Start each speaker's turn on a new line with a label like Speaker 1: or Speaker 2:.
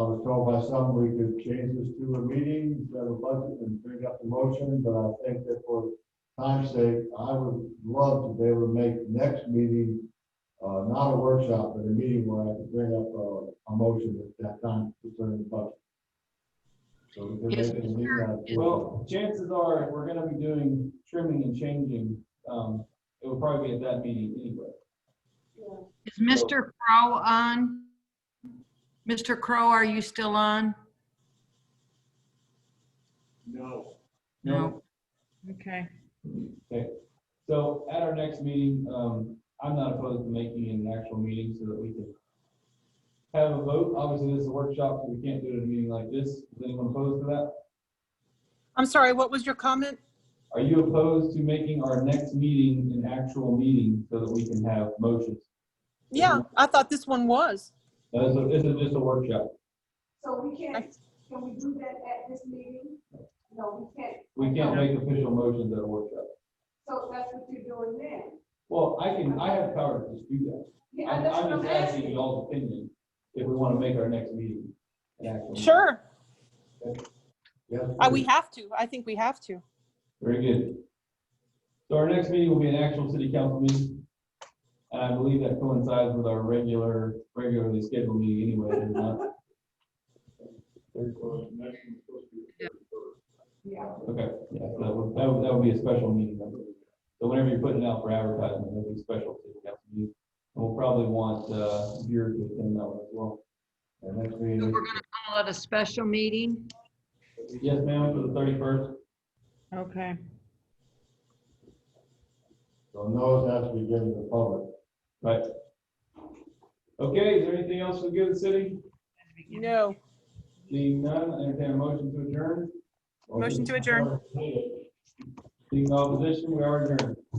Speaker 1: So by some, we could change this to a meeting, set a budget and bring up the motion, but I think that for time's sake, I would love to be able to make next meeting, uh, not a workshop, but a meeting where I could bring up uh, a, a motion at that time concerning the budget. So we could
Speaker 2: Yes,
Speaker 1: make it a meeting out of it.
Speaker 3: Well, chances are, if we're gonna be doing trimming and changing, um, it will probably be at that meeting anyway.
Speaker 2: Is Mr. Crow on? Mr. Crow, are you still on?
Speaker 1: No.
Speaker 2: Okay.
Speaker 3: So at our next meeting, um, I'm not opposed to making an actual meeting so that we can have a vote. Obviously, this is a workshop, so we can't do it at a meeting like this. Is anyone opposed to that?
Speaker 4: I'm sorry, what was your comment?
Speaker 3: Are you opposed to making our next meeting an actual meeting so that we can have motions?
Speaker 4: Yeah, I thought this one was.
Speaker 3: No, so This is just a workshop.
Speaker 5: So we can't, can we do that at this meeting? No, we can't.
Speaker 3: We can't make official motions at a workshop.
Speaker 5: So that's what you're doing then?
Speaker 3: Well, I can, I have power to just do that.
Speaker 5: Yeah,
Speaker 3: I'm,
Speaker 5: that's what
Speaker 3: I'm just asking y'all's opinion if we want to make our next meeting. an actual meeting.
Speaker 4: Sure,
Speaker 1: Yes.
Speaker 4: I- we have to. I think we have to.
Speaker 3: Very good. So our next meeting will be an actual city council meeting. And I believe that coincides with our regular, regularly scheduled meeting anyway. is it not?
Speaker 5: Yeah,
Speaker 3: Okay, yeah, so that would, that would, that would be a special meeting. I believe. So whenever you're putting it out for advertising, it'll be special city council meeting. And we'll probably want, uh, beer to attend that one as well.
Speaker 1: And next
Speaker 2: So
Speaker 1: meeting,
Speaker 2: we're gonna call it a special meeting?
Speaker 3: Yes, ma'am, for the thirty-first.
Speaker 2: Okay.
Speaker 1: so notice has to be given to the public.
Speaker 3: Right. Okay, is there anything else we give the city?
Speaker 4: No.
Speaker 3: Seeing none, I entertain a motion to adjourn.
Speaker 4: Motion to adjourn.
Speaker 3: Seeing no opposition, we are adjourned.